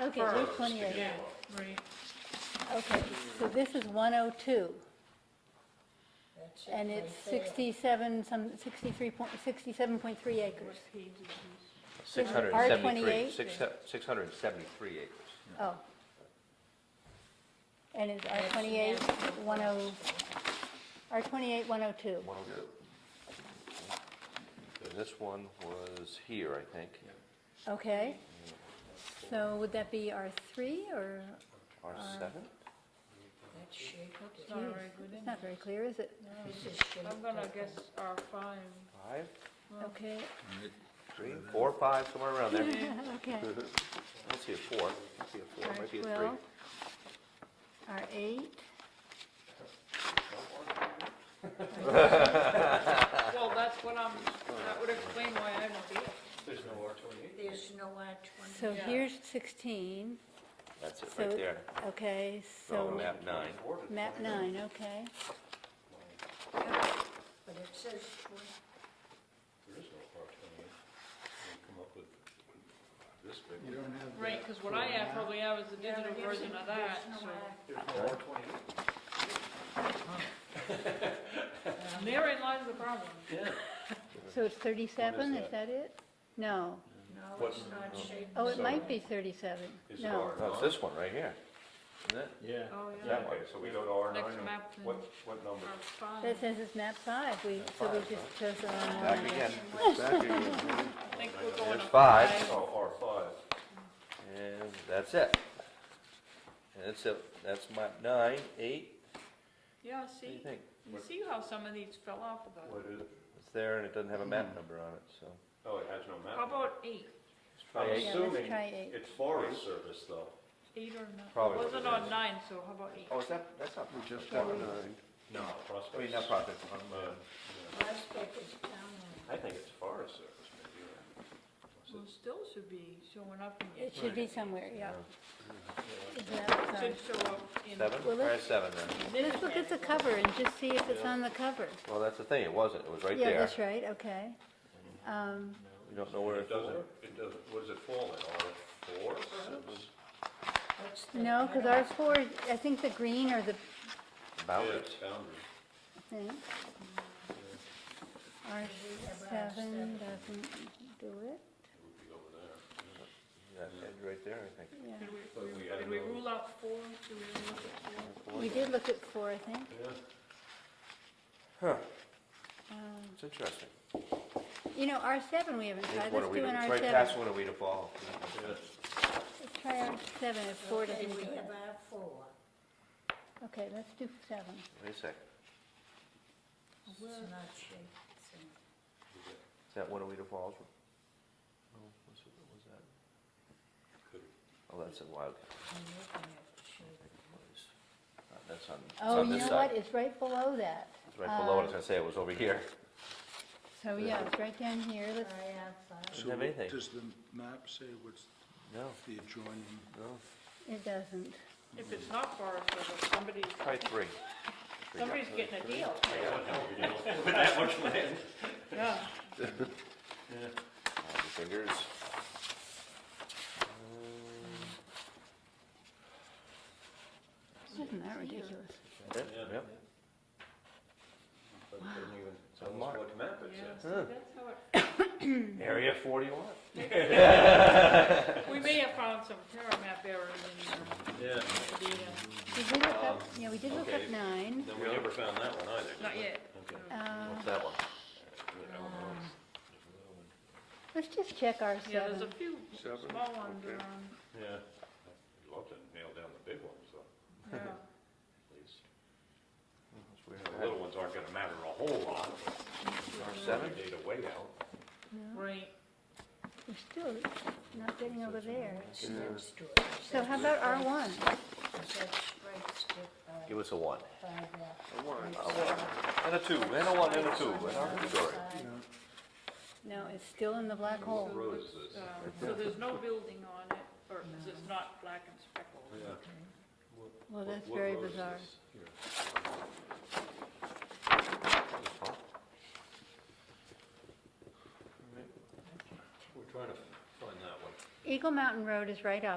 Okay, first. here's 28. Yeah, right. Okay, so this is 102, That's it and it's right there. 67, some, 63 point, 67.3 acres. What page is this? Six it hundred and seventy-three, R28? six, six hundred and seventy-three acres. Oh. And it's R twenty-eight, one oh, R twenty-eight, one oh two. One oh two. So This one was here, I think, Okay. So would that be R three or, R seven? That shape up It's not there. very good, it's is not very clear, is it? This is shape I'm gonna up. guess R five. Five, Okay, three, four, five, somewhere around there. okay. I don't see a four, I don't see a four, might be a three. Well, R eight, Uh, Well, that's what I'm, that would explain why I don't be. There's no R twenty. so Yeah. here's sixteen, That's it so, right there. okay, Oh, so map nine. map nine, okay. But it says twenty. You don't have. Right, because what I have, probably have is a digital version of that, so. And Therein lies the problem. So it's thirty-seven, is that it? No, No, it's not shaped. oh, it might be thirty-seven, no. No, Oh, it's this one right here, isn't it? Yeah. Oh, yeah, That one. Okay, so we go to R nine, Next map, then. what, what number? R five. That says it's map five, we, so we just chose the wrong one. Back again, back again. I think we're going There's up five. Oh, R five. And that's it. And that's it, that's map nine, eight, Yeah, what do see, you think? you see how some of these fell off of that? What is, It's there and it doesn't have a map number on it, so. oh, it has no How map. about eight? I'm Yeah, let's assuming try eight. it's Forest Service though. Eight or nine? Probably It what wasn't it on is. nine, so how about eight? Oh, is that, that's not. We just Prospect. have nine. No. I mean, Prospect. not profit, um, Uh, uh, Prospect is down I think it's Forest Service maybe. or- Well, was it- still should be showing up in, It should be somewhere, yeah. It's map it five. should show up in. seven, Well, try a let's- seven then. Let's look at the cover and just see if it's on the cover. Well, that's the thing, it wasn't, it was right Yeah, there. that's right, okay. Um, We don't know where It it was. doesn't, it doesn't, what does it fall in, R four perhaps? there. What's the No, because cutoff? ours four, I think the green or the, Yeah, Bounded. it's boundary. I think. R seven doesn't do it, It would be over there. That edge right there, I think. yeah. Did But we we, had did we no- rule out four? Did we look at four? We did look at four, I think. Yeah. Huh, Um, it's interesting. You know, R seven, we haven't tried, It's let's do an Winneweeda- R Right past seven. Winneweeda Falls. Let's try R seven, if four Okay, doesn't do we it. have R four. Okay, let's do seven. Wait a sec, It's not shaped. so is that Winneweeda Falls? No, what's it- what was that? Oh, that's a Wildcat. I'm looking at the shape. Uh, That's on, it's Oh, on you this know what, side. it's right below that. It's right below Uh, it, I was gonna say, it was over here. So, yeah, it's right down here, let's, I have five. Doesn't have anything. Does the map say what's No, the adjoining? no, it doesn't. If it's not far, so somebody's, try three. somebody's getting a deal. Yeah. Uh, the Fingers. Isn't that ridiculous? Yep, Yeah. yep. But it doesn't even tell us mark. what map it's in. Yeah, see, Huh. that's how Mm-hmm. Area forty-one. it, we may have found some terra map errors in uh, Yeah, the data. We did look Um, up, yeah, we did look up okay. nine. no, we never found that one either. did Not we? yet. Okay. Uh, What's that one? Let's just check our Yeah, there's seven. a few Seven, small ones okay. around, Yeah. You'd love to nail down the big ones, though, yeah. at least. It's weird. The little ones aren't gonna matter a whole lot, but R seven? they data way out. No, Right, We're still not getting over there. It's next to it. So how about R one? That's right, skip by, Give us a one. uh, by that. And a two, and a one, and a two, and our inventory. No, it's still in the black hole. Road is this? um, so there's no building on it, or, because it's not black and speckled. Yeah. Well, What- that's what very road is bizarre. this? Here. We're trying to find that one. Eagle Mountain Road is right up.